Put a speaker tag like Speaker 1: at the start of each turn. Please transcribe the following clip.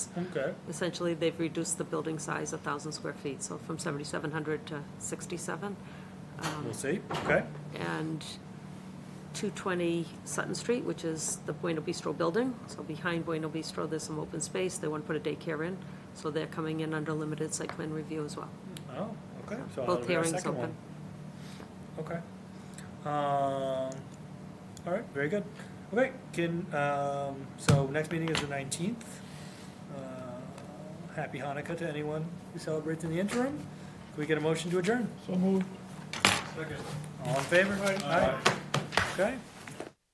Speaker 1: Okay.
Speaker 2: Essentially, they've reduced the building size a thousand square feet, so from seventy-seven hundred to sixty-seven. Um,
Speaker 1: We'll see, okay?
Speaker 2: and 220 Sutton Street, which is the Bueno Bistro building. So behind Bueno Bistro, there's some open space. They want to put a daycare in, so they're coming in under limited site plan review as well.
Speaker 1: Oh, okay, so that'll
Speaker 2: Both
Speaker 1: be our
Speaker 2: hearings
Speaker 1: second one.
Speaker 2: open.
Speaker 1: Okay. Um, all right, very good. Okay, can, um, so next meeting is the nineteenth. Uh, Happy Hanukkah to anyone who celebrates in the interim. Can we get a motion to adjourn?
Speaker 3: So moved.
Speaker 1: All in favor? Aye. Okay,